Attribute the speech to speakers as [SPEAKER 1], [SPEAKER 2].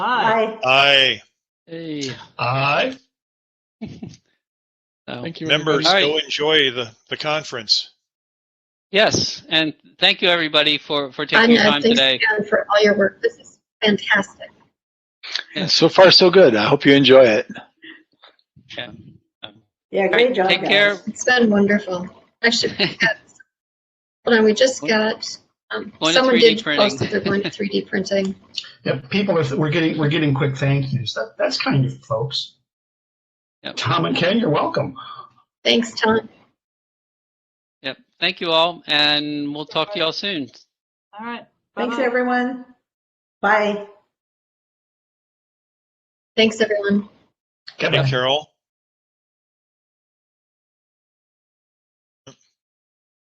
[SPEAKER 1] Aye.
[SPEAKER 2] Aye.
[SPEAKER 3] Hey,
[SPEAKER 4] Aye.
[SPEAKER 3] so-
[SPEAKER 4] Thank you.
[SPEAKER 2] Members,
[SPEAKER 3] All right.
[SPEAKER 2] go enjoy the, the conference.
[SPEAKER 3] yes, and thank you everybody for for taking your
[SPEAKER 5] Anya,
[SPEAKER 3] time
[SPEAKER 5] thanks
[SPEAKER 3] today.
[SPEAKER 5] again for all your work. This is fantastic.
[SPEAKER 4] everybody. So far, so good. I hope you enjoy it.
[SPEAKER 3] Yeah.
[SPEAKER 1] Yeah,
[SPEAKER 3] All right,
[SPEAKER 1] great job,
[SPEAKER 3] take care.
[SPEAKER 1] guys.
[SPEAKER 5] It's been wonderful. I should get, hold on, we just got, um,
[SPEAKER 3] Going to
[SPEAKER 5] someone
[SPEAKER 3] 3D
[SPEAKER 5] did
[SPEAKER 3] printing.
[SPEAKER 5] post that they're going to 3D printing.
[SPEAKER 4] Yeah, people are, we're getting we're getting quick thank yous. That that's kind of folks.
[SPEAKER 3] Yep.
[SPEAKER 4] Tom and Ken, you're welcome.
[SPEAKER 5] Thanks, Tom.
[SPEAKER 3] Yep. Thank you all, and we'll talk to y'all soon.
[SPEAKER 6] All right.
[SPEAKER 1] Thanks,
[SPEAKER 6] Bye-bye.
[SPEAKER 1] everyone. Bye.
[SPEAKER 5] Thanks, everyone.
[SPEAKER 4] Kevin.
[SPEAKER 2] Hey, Carol?